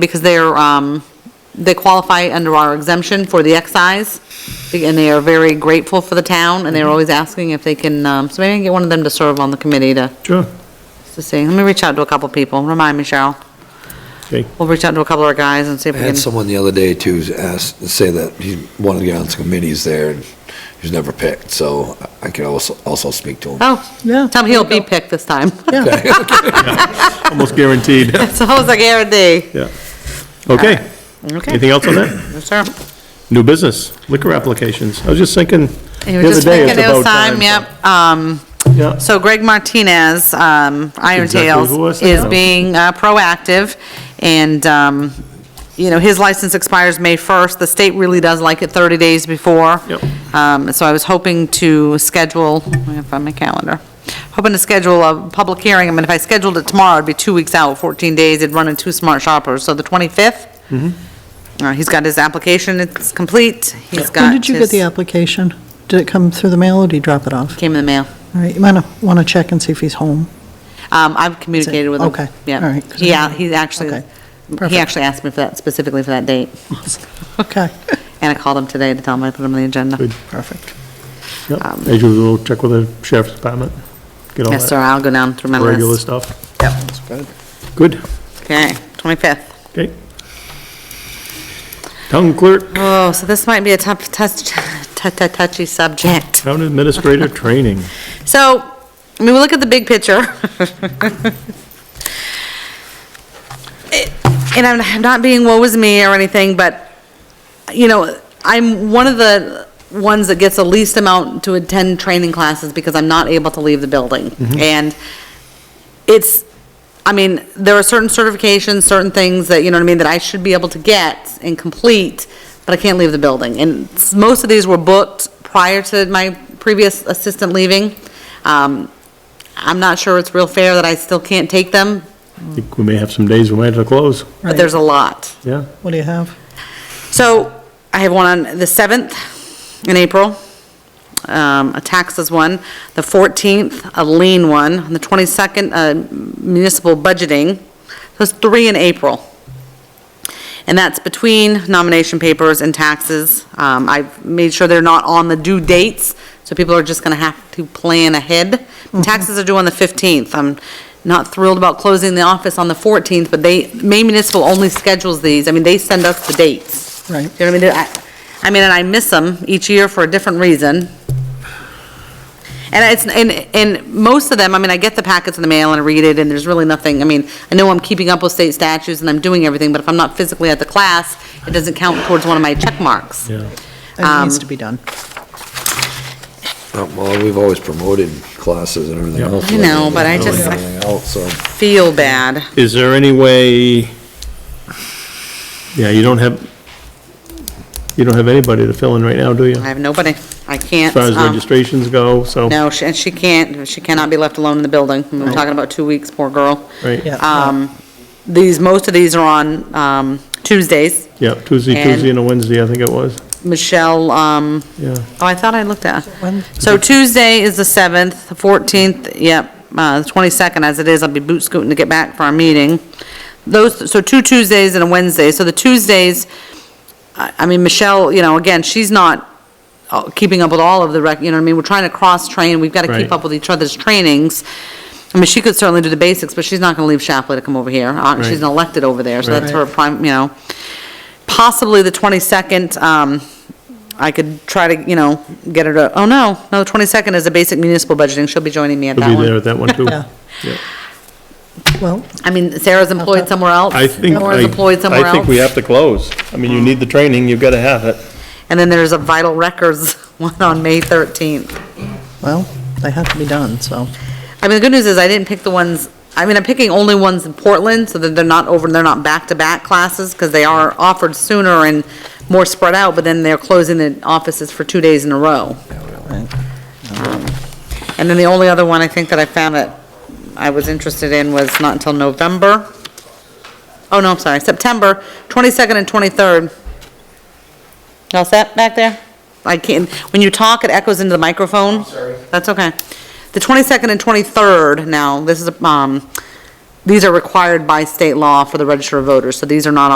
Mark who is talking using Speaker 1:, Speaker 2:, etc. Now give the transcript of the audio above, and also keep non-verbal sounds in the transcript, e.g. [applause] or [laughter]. Speaker 1: because they're, um, they qualify under our exemption for the excise, and they are very grateful for the town,
Speaker 2: Mm-hmm.
Speaker 1: and they're always asking if they can, um, so maybe I can get one of them to serve on the committee to,
Speaker 2: Sure.
Speaker 1: to see. Let me reach out to a couple people, remind me, Cheryl.
Speaker 2: Okay.
Speaker 1: We'll reach out to a couple of our guys and see if
Speaker 3: I
Speaker 1: we can.
Speaker 3: had someone the other day too ask, say that he, one of the council committees there, and he's never picked, so I could also, also speak to him.
Speaker 1: Oh,
Speaker 2: Yeah.
Speaker 1: tell me he'll be picked this time.
Speaker 2: Almost guaranteed.
Speaker 1: [laughs] So I was like, guarantee.
Speaker 2: [laughs] Yeah. Okay.
Speaker 1: Uh, Okay,
Speaker 2: Anything else on that?
Speaker 1: Yes, sir.
Speaker 2: [clears throat] New business, liquor applications. I was just thinking
Speaker 1: You
Speaker 2: the
Speaker 1: were
Speaker 2: other
Speaker 1: just
Speaker 2: day, it's
Speaker 1: thinking it
Speaker 2: about
Speaker 1: was
Speaker 2: time.
Speaker 1: time, yep. Um,
Speaker 2: Yeah.
Speaker 1: So Greg Martinez, um, Iron
Speaker 2: Exactly
Speaker 1: Tales,
Speaker 2: who I was thinking
Speaker 1: is
Speaker 2: of.
Speaker 1: being uh, proactive, and, um, you know, his license expires May 1st. The state really does like it 30 days before.
Speaker 2: Yep.
Speaker 1: Um, So I was hoping to schedule, let me find my calendar, hoping to schedule a public hearing. I mean, if I scheduled it tomorrow, it'd be two weeks out, 14 days, it'd run in two smart shoppers. So the 25th,
Speaker 2: Mm-hmm.
Speaker 1: uh, he's got his application, it's complete, he's got
Speaker 4: When did you get
Speaker 1: his-
Speaker 4: the application? Did it come through the mail or did you drop it off?
Speaker 1: Came in the mail.
Speaker 4: All right, you might want to check and see if he's home.
Speaker 1: Um, I've communicated with him.
Speaker 4: Okay, all
Speaker 1: Yeah,
Speaker 4: right, 'cause I
Speaker 1: yeah,
Speaker 4: didn't-
Speaker 1: he's actually,
Speaker 4: okay,
Speaker 1: he
Speaker 4: perfect.
Speaker 1: actually asked me for that, specifically for that date,
Speaker 4: Okay,
Speaker 1: and I called him today to tell him I put him on the agenda.
Speaker 2: Good.
Speaker 4: [laughs] perfect.
Speaker 2: Yep. As usual, check with the sheriff's department. Get
Speaker 1: Um,
Speaker 2: all
Speaker 1: Yes, sir,
Speaker 2: that
Speaker 1: I'll go down through my
Speaker 2: regular
Speaker 1: list.
Speaker 2: stuff. Yep. Good.
Speaker 1: Okay, 25th.
Speaker 2: Okay. Town clerk,
Speaker 1: Oh, so this might be a tough, touch- tou- tou- touchy subject. [laughs]
Speaker 2: town administrator training.
Speaker 1: So, I mean, we look at the big picture. [laughs] It- And I'm- I'm not being woe is me or anything, but, you know, I'm one of the ones that gets the least amount to attend training classes because I'm not able to leave the building. And it's, I mean, there are certain certifications, certain things that, you know what I mean, that I should be able to get and complete, but I can't leave the building. And s- most of these were booked prior to my previous assistant leaving. Um, I'm not sure it's real fair that I still can't take them,
Speaker 2: I think we may have some days we might have to close.
Speaker 1: but there's a lot.
Speaker 2: Yeah.
Speaker 4: What do you have?
Speaker 1: So I have one on the 7th in April, um, a taxes one, the 14th, a lien one, and the 22nd, uh, municipal budgeting. So it's three in April. And that's between nomination papers and taxes. Um, I've made sure they're not on the due dates, so people are just gonna have to plan ahead. Taxes are due on the 15th. I'm not thrilled about closing the office on the 14th, but they, Maine Municipal only schedules these. I mean, they send us the dates. You
Speaker 4: Right.
Speaker 1: know what I mean? I, I mean, and I miss them each year for a different reason. And it's, and, and most of them, I mean, I get the packets in the mail and I read it, and there's really nothing, I mean, I know I'm keeping up with state statutes and I'm doing everything, but if I'm not physically at the class, it doesn't count towards one of my check marks.
Speaker 2: Yeah.
Speaker 4: It
Speaker 1: Um,
Speaker 4: needs to be done.
Speaker 3: Uh, Well, we've always promoted classes and everything
Speaker 2: Yeah.
Speaker 3: else.
Speaker 1: I know, but I
Speaker 3: and
Speaker 1: just-
Speaker 3: everything else, so.
Speaker 1: Feel bad.
Speaker 2: Is there any way, yeah, you don't have, you don't have anybody to fill in right now, do you?
Speaker 1: I
Speaker 2: As
Speaker 1: have nobody. I can't.
Speaker 2: far as
Speaker 1: um,
Speaker 2: registrations go, so,
Speaker 1: No, she- and she can't, she cannot be left alone in the building. We're talking about two weeks, poor girl.
Speaker 2: right,
Speaker 4: Yeah.
Speaker 1: Um, these, most of these are on, um, Tuesdays.
Speaker 2: yeah, Tuesday,
Speaker 1: And-
Speaker 2: Tuesday and a Wednesday, I think it was,
Speaker 1: Michelle, um,
Speaker 2: yeah.
Speaker 1: Oh, I thought I looked at.
Speaker 4: when?
Speaker 1: So Tuesday is the 7th, the 14th, yep, uh, the 22nd, as it is, I'll be boot scooting to get back for our meeting. Those, so two Tuesdays and a Wednesday, so the Tuesdays, I I mean, Michelle, you know, again, she's not uh, keeping up with all of the rec, you know what I mean, we're trying to cross-train, we've got to
Speaker 2: Right.
Speaker 1: keep up with each other's trainings. I mean, she could certainly do the basics, but she's not going to leave Shapley to come over here, Uh,
Speaker 2: Right.
Speaker 1: she's an elected over there, so that's her
Speaker 4: Right.
Speaker 1: prime, you know. Possibly the 22nd, um, I could try to, you know, get her to, oh, no, no, the 22nd is a basic municipal budgeting, she'll be joining me at
Speaker 2: We'll
Speaker 1: that
Speaker 2: be there
Speaker 1: one.
Speaker 2: at that one, too.
Speaker 4: Yeah.
Speaker 2: Yeah.
Speaker 4: Well,
Speaker 1: I mean, Sarah's employed somewhere else.
Speaker 2: I think, I,
Speaker 1: Nora's employed somewhere
Speaker 2: I think we
Speaker 1: else. Mm-hmm.
Speaker 2: have to close. I mean, you need the training, you've got to have it.
Speaker 1: And then there's a vital records [laughs] one on May 13th.
Speaker 4: well, they have to be done, so.
Speaker 1: I mean, the good news is I didn't pick the ones, I mean, I'm picking only ones in Portland, so that they're not over, they're not back-to-back classes, because they are offered sooner and more spread out, but then they're closing the offices for two days in a row. Um,
Speaker 4: right.
Speaker 1: And then the only other one I think that I found that I was interested in was not until November. Oh, no, I'm sorry, September 22nd and 23rd. You All set back there? I can't, when you talk, it echoes into the microphone. sorry. That's okay. The 22nd and 23rd now, this is, um, these are required by state law for the register of voters, so these are not